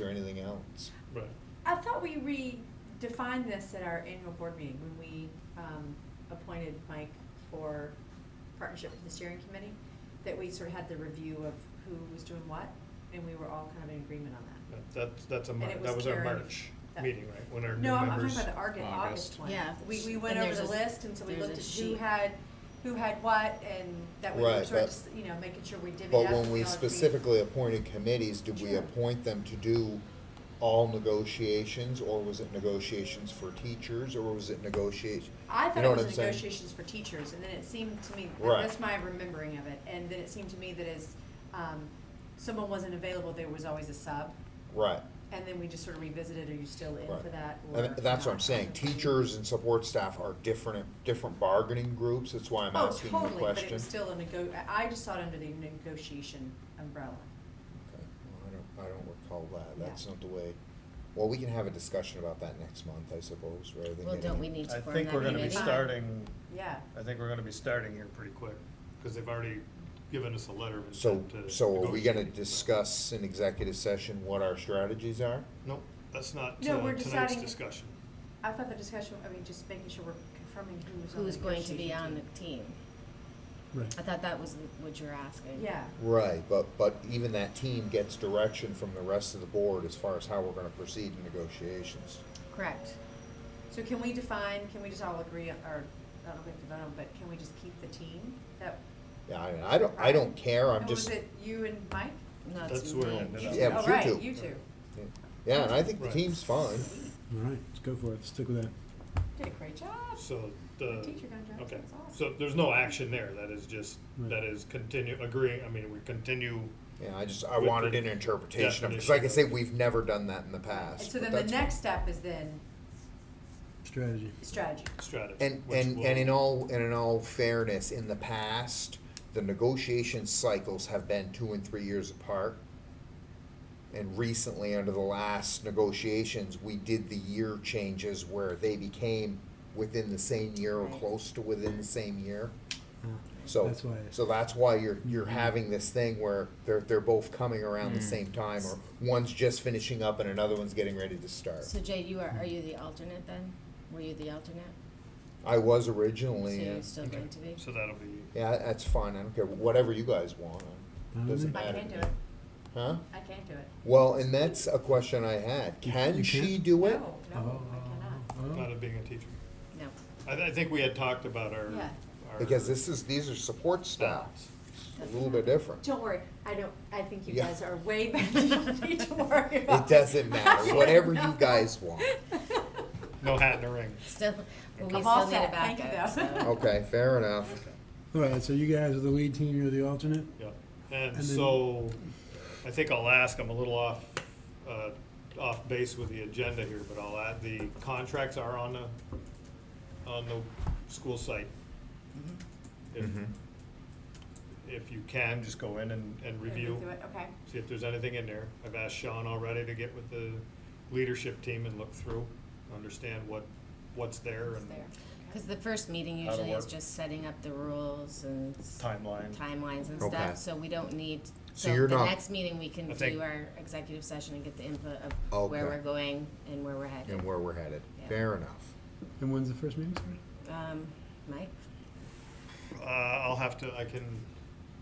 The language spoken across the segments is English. or anything else. Right. I thought we redefined this at our annual board meeting when we um, appointed Mike for partnership with the steering committee, that we sort of had the review of who was doing what, and we were all kind of in agreement on Yeah, that. That's, that's a, And Mar- it that was was our carried- March that- meeting, right? When our new No, I'm I'm talking members. about the Arg- August August. one. Yeah. We, we went And over the there's a- list, and so we there's looked a at who sheet. had, who had what, and that we were Right, sort but- of, just, you know, making sure we divvied up. But when and we all agreed. specifically appointed committees, did we Sure. appoint them to do all negotiations, or was it negotiations for teachers, or was it negotiate? I you thought know it what was I'm saying? negotiations for teachers, and then it seemed to me, Right. that's my remembering of it, and then it seemed to me that as, um, someone wasn't available, there was always a sub, Right, and then we just sort of revisited, are you still in right. for that? or And that's what I'm not? saying, teachers and support staff are different, different bargaining groups, that's why I'm Oh, asking the question. totally, but it was still a nego, I I just saw it under the negotiation umbrella. Okay, well, I don't, I don't recall that, Yeah. that's not the way, well, we can have a discussion about that next month, I suppose, rather than Well, getting- don't we need to I form that think we're gonna be committee? Fine. starting, Yeah, I think we're gonna be starting here pretty quick, because they've already given us a letter of So, intent to. so are we gonna negotiate. discuss in executive session what our strategies are? Nope, that's not No, uh, we're tonight's deciding- discussion. I thought the discussion, I mean, just making sure we're confirming who was on the Who's going to be negotiation on team. the team? Right. I thought that was what you were asking. Yeah, Right, but, but even that team gets direction from the rest of the board as far as how we're gonna proceed in negotiations. Correct. so can we define, can we just all agree, on- or, I don't know if we have to vote on, but can we just keep the team that Yeah, I mean, I don't, I don't care, I'm And just, Was it you and Mike? No, it's That's where it not. ended You up. Yeah, it Oh, was you right, two. you two. yeah, and I think the Right. team's fine. All right, let's go for it. Stick with that. Did a great job. So the. Teacher contract, Okay, that's so awesome. there's no action there, that is just, Right. that is continue, agreeing, I mean, we continue, Yeah, I just, I With wanted the an interpretation of, because definition like I of- say, we've never done that in the And past. so but then the that's fine. next step is then Strategy. strategy. strategy. And, which and, will- and in all, and in all fairness, in the past, the negotiation cycles have been two and three years apart. And recently, under the last negotiations, we did the year changes where they became within the same year or Right. close to within the same year. Uh, So, that's why. so that's why you're, you're having this thing where they're, they're both coming around the Mm. same time, or one's just finishing up and another one's getting ready to start. So Jay, you are, are you the alternate then? Were you the alternate? I was So originally, yeah. you're still Okay, going to be? So that'll be. Yeah, that's fine. I don't care. Whatever you guys want. Fine It doesn't with me. I matter. can to do me. it. Huh? I can't do it. Well, and that's a question I had. You- Can you she can't? do it? No, no, I cannot. Oh, Not of being a teacher. No. I, th- I think we had talked about our. Yeah. our Because this is, these are support staff. balance. It's a little bit different. Don't worry, I don't, I think you Yeah. guys are way better than you need to worry about. It doesn't matter. Whatever you No. guys want. No hat in the ring. Still, well, we I'm all still need a set. Thank you, backup, though. so. Okay, fair enough. oh. All right, so you guys are the lead team, you're the alternate? Yeah, and And then- so, I think I'll ask, I'm a little off, uh, off base with the agenda here, but I'll add, the contracts are on the, on the school site. Mm-hmm. If, if you can, just go in and, and review, Do it, Okay, see if there's anything in there. I've asked Sean already to get with the leadership team and look through, understand what, what's there it's and there. Oh. Cause the first meeting How to usually is work. just setting up the rules and s- timeline. timelines and Okay. stuff, so we don't need, So so you're the not- next meeting, we can I think- do our executive session and get the input of where Okay. we're going and where we're headed. And where we're headed. Yeah. Fair enough. And when's the first meeting start? Um, Mike? Uh, I'll have to, I can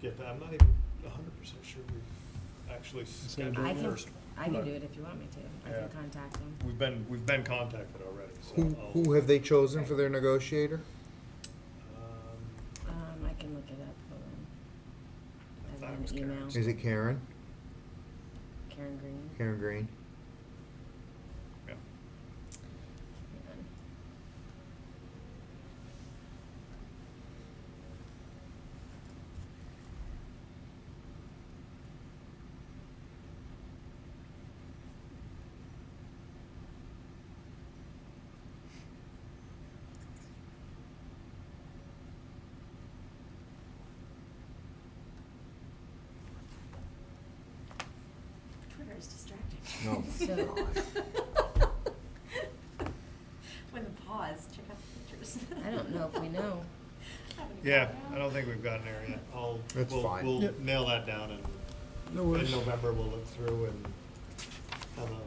get that, I'm not even hundred percent sure we actually scheduled Do I the can, first. I can but do it if you want me to. I Yeah. can contact them. We've been, we've been contacted already, so. Who, I'll- who have they chosen for their negotiator? Um, Um, I can look it up. Hold on. I thought I've got it an was email. Karen's. Is it Karen? Karen Green. Karen Green? yeah. Hang on. Twitter is distracting. No. So- When the pause, check out the pictures. I don't know if we know. Haven't Yeah, gotten I out. don't think we've gotten there yet. I'll, That's we'll, fine. we'll Yep. nail that down No and in worries. November we'll look through and on the